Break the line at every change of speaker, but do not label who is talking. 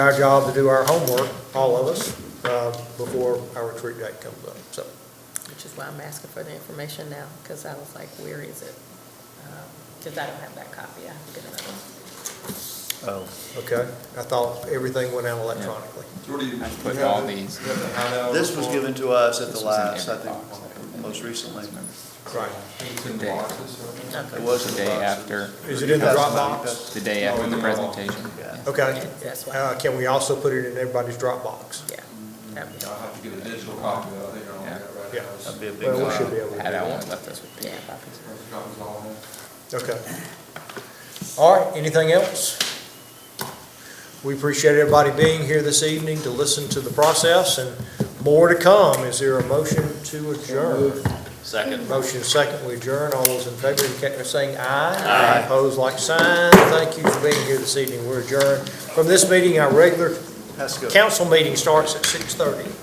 Our job to do our homework, all of us, uh, before our retreat date comes up, so.
Which is why I'm asking for the information now, because I was like, where is it? Because I don't have that copy, I have to get another one.
Oh,
Okay, I thought everything went out electronically.
I put all these.
this was given to us at the
This was in
last, I
every box.
think, most recently.
Right.
Day-
It was in
The
the
day
boxes.
after,
Is it in the Dropbox?
the day after the presentation.
Yeah.
Okay.
That's why.
Uh, Can we also put it in everybody's Dropbox?
Yeah. that'd be-
I'll have to get a digital copy of it, I think I only got it right now.
Yeah.
That'd be a big
Well, we should
one.
be able to do
Had I
that.
only left us with paper
Yeah.
copies.
First copy's all in.
Okay. All right, anything else? We appreciate everybody being here this evening to listen to the process and more to come. Is there a motion to adjourn?
Second.
Motion second, we adjourn. All those in favor indicate by saying aye. Aye. Opposed, like sign. Thank you for being here this evening. We're adjourned. From this meeting, our regular
Has to go.
council meeting starts at 6:30.